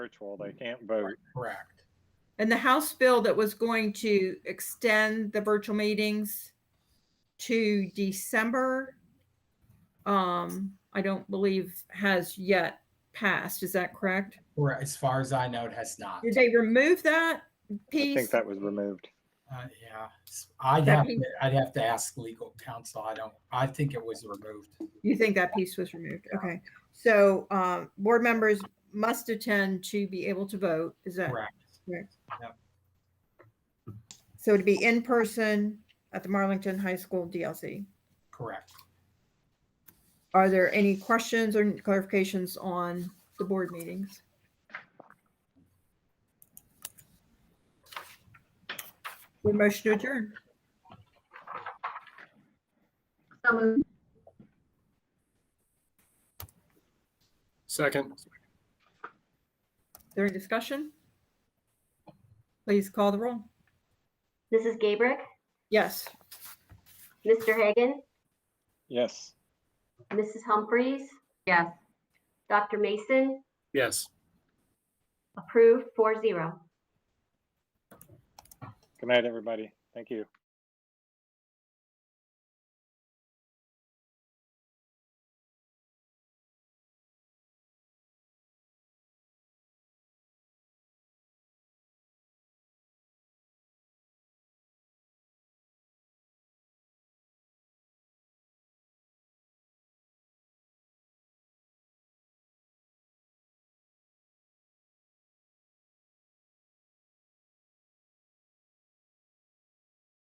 virtual, they can't vote. Correct. And the House bill that was going to extend the virtual meetings to December, um, I don't believe has yet passed. Is that correct? Or as far as I know, it has not. Did they remove that I think piece? that was removed. Uh, yeah, I'd That have, means- to- I'd have to ask legal counsel. I don't, I think it was removed. You think that piece was removed? Okay. So, um, board members must attend to be able to vote. Is that? Correct. So it'd be in person at the Marlington High School DLC. Correct. Are there any questions or clarifications on the board meetings? Your motion to adjourn. So moved. Second. Is there any discussion? Please call the roll. Mrs. Gabrick, Yes. Mr. Hagan, Yes. Mrs. Humphries? Yes. Dr. Mason, Yes. approved 4-0. Good night, everybody. Thank you.